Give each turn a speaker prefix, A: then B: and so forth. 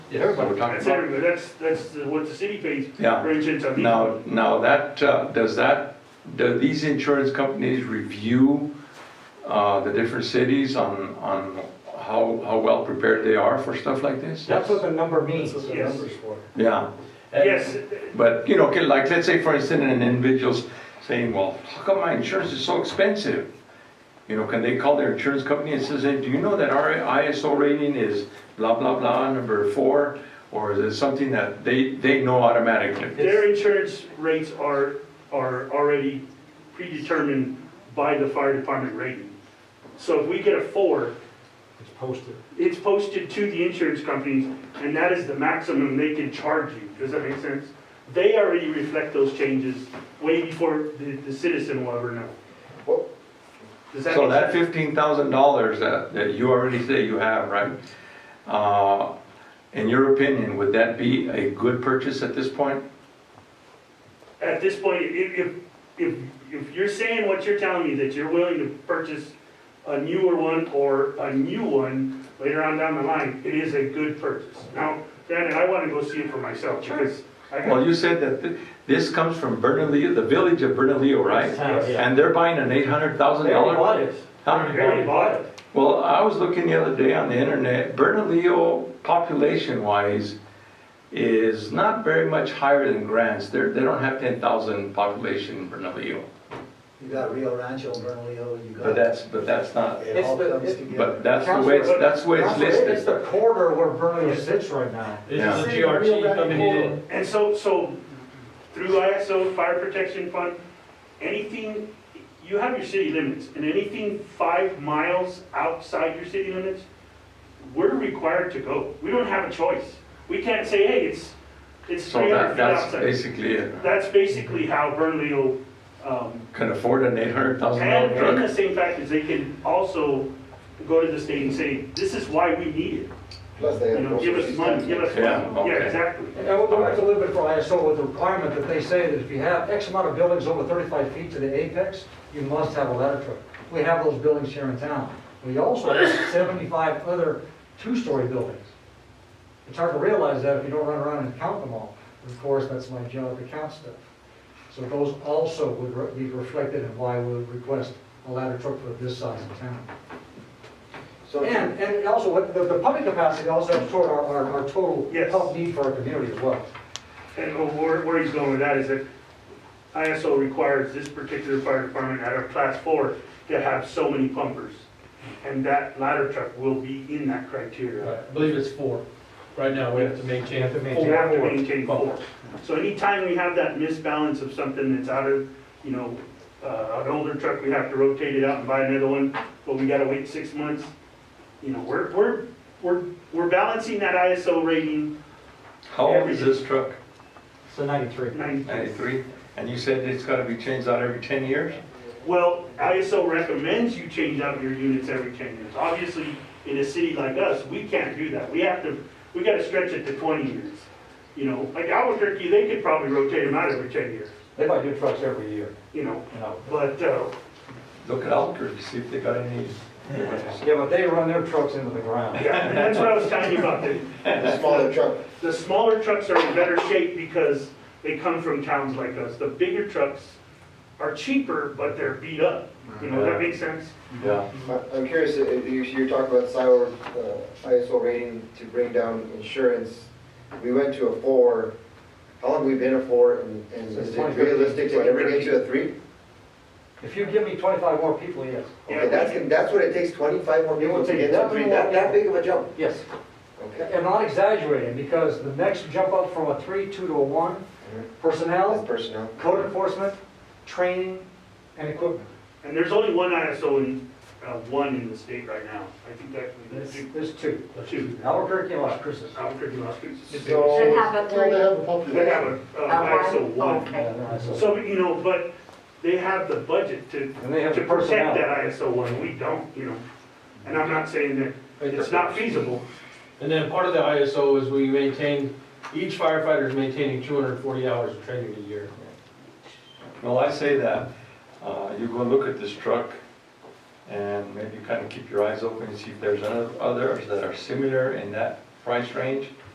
A: everybody we're talking
B: That's
A: about.
B: everywhere, that's, that's the- what the city pays.
C: Yeah.
B: Very chin to me.
C: Now, now that, uh, does that, do these insurance companies review uh, the different cities on, on how, how well prepared they are for stuff like this?
A: That's what the number means.
B: the Yes. number's
A: for.
C: Yeah,
B: Yes,
C: but, you know, okay, like, let's say for instance, an individual's saying, well, how come my insurance is so expensive? You know, can they call their insurance company and says, hey, do you know that our ISO rating is blah, blah, blah, number four? Or is it something that they, they know automatically?
B: their insurance rates are, are already predetermined by the fire department rating. So if we get a four,
A: It's posted.
B: it's posted to the insurance companies, and that is the maximum they can charge you. Does that make sense? They already reflect those changes way before the, the citizen will ever know.
A: Well-
B: Does that
C: So
B: make
C: that
B: sense?
C: fifteen thousand dollars that, that you already say you have, right? Uh, in your opinion, would that be a good purchase at this point?
B: At this point, if, if, if, if you're saying what you're telling me, that you're willing to purchase a newer one or a new one later on down the line, it is a good purchase. Now, granted, I wanna go see it for myself, because I got
C: Well, you said that thi- this comes from Bernalillo, the village of Bernalillo, right? And they're buying an eight hundred thousand dollar?
B: barely bought it.
C: Well, I was looking the other day on the internet, Bernalillo population wise is not very much higher than Grants. They're, they don't have ten thousand population in Bernalillo.
D: You got Rio Rancho, Bernalillo, you got.
C: But that's, but that's not,
D: It all
E: It's the-
D: comes
E: it-
D: together.
C: but that's the way, it's- that's the way it's listed.
A: It's the corridor where Vernon sits right now.
C: Yeah.
F: This is the
D: City of Rio
F: GRT
D: Grande
F: coming in.
B: And so, so through ISO, Fire Protection Fund, anything, you have your city limits, and anything five miles outside your city limits, we're required to go. We don't have a choice. We can't say, hey, it's, it's
C: So
B: 300
C: that,
B: feet
C: that's
B: outside.
C: basically it.
B: That's basically how Bernalillo, um,
C: Can afford an eight hundred thousand
B: and,
C: dollar
B: and
C: truck.
B: the same fact is they can also go to the state and say, this is why we need it.
G: Plus they
B: You
G: have.
B: know, give us money, give us
C: Yeah,
B: money. Yeah,
C: okay.
B: exactly.
A: And we'll go back a little bit for ISO with the requirement that they say that if you have X amount of buildings over 35 feet to the apex, you must have a ladder truck. We have those buildings here in town. We also have 75 other two-story buildings. It's hard to realize that if you don't run around and count them all. Of course, that's my job to count stuff. So those also would re- be reflected in why we would request a ladder truck for this size of town.
D: So,
A: And, and also, what- the, the public capacity also helps toward our, our, our total
B: Yes.
A: health need for our community as well.
B: And oh, where, where he's going with that is that ISO requires this particular fire department at a class four to have so many pumpers. And that ladder truck will be in that criteria.
F: I believe it's four. Right now, we have to maintain
A: have to maintain
B: You
F: four.
B: have to maintain four. So anytime we have that misbalance of something that's out of, you know, uh, an older truck, we have to rotate it out and buy another one, but we gotta wait six months. You know, we're, we're, we're, we're balancing that ISO rating
C: How old is this truck?
E: So 93.
B: nine,
C: Ninety-three? And you said it's gotta be changed out every ten years?
B: Well, ISO recommends you change out your units every 10 years. Obviously, in a city like us, we can't do that. We have to, we gotta stretch it to 20 years. You know, like Albuquerque, they could probably rotate them out every 10 years,
E: They buy new trucks every year,
B: you know,
E: you know.
B: but, uh,
C: Look at Albuquerque, see if they got any.
E: Yeah, but they run their trucks into the ground.
B: yeah, and that's what I was telling you about. The-
G: The smaller truck,
B: The smaller trucks are in better shape because they come from towns like us. The bigger trucks are cheaper, but they're beat up. You know, that makes sense?
C: Yeah.
G: I- I'm curious, uh, you, you talked about SIO, uh, ISO rating to bring down insurance. We went to a four, how long have we been a four, and, and is it realistic to ever get to a three?
A: If you give me 25 more people, yes.
G: Okay, that's, that's what it takes, twenty-five more
A: It
G: people
A: would
G: to
A: take
G: get to three,
A: definitely
G: that, that big of a jump,
A: Yes.
G: okay?
A: I'm not exaggerating, because the next jump up from a three, two to a one,
G: That's
A: personnel,
G: personnel.
A: code enforcement, training, and equipment.
B: And there's only one ISO in, uh, one in the state right now. I think that,
A: There's,
B: that's two.
A: there's two.
B: Two.
A: Albuquerque and Las Cruces.
B: Albuquerque, Las Cruces.
G: So-
H: Should have a
G: Well, they have a
B: They have
G: population.
B: a, uh, ISO one.
H: Okay.
B: So, you know, but they have the budget to,
A: And they have
B: to
A: the personnel.
B: protect that ISO one, we don't, you know? And I'm not saying that it's not feasible.
F: And then part of the ISO is we maintain, each firefighter is maintaining 240 hours of training a year.
C: Well, I say that, uh, you go look at this truck and maybe kind of keep your eyes open and see if there's other- others that are similar in that price range.